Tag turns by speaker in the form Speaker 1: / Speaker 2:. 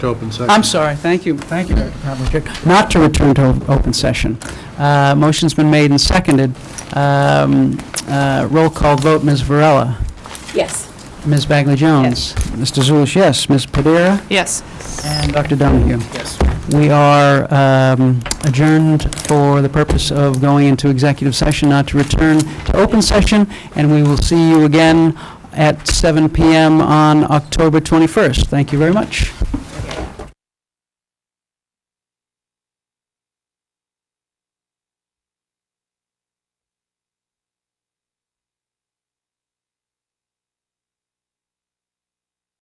Speaker 1: to open session.
Speaker 2: I'm sorry, thank you, thank you, Dr. Pavlicek. Not to return to open session. Uh, Motion's been made and seconded. Um, uh, Roll call vote, Ms. Varela.
Speaker 3: Yes.
Speaker 2: Ms. Bagley Jones. Mr. Zulish, yes. Ms. Padilla.
Speaker 3: Yes.
Speaker 2: And Dr. Donahue. Yes. We are um, adjourned for the purpose of going into executive session, not to return to open session, and we will see you again at 7 PM on October 21st. Thank you very much.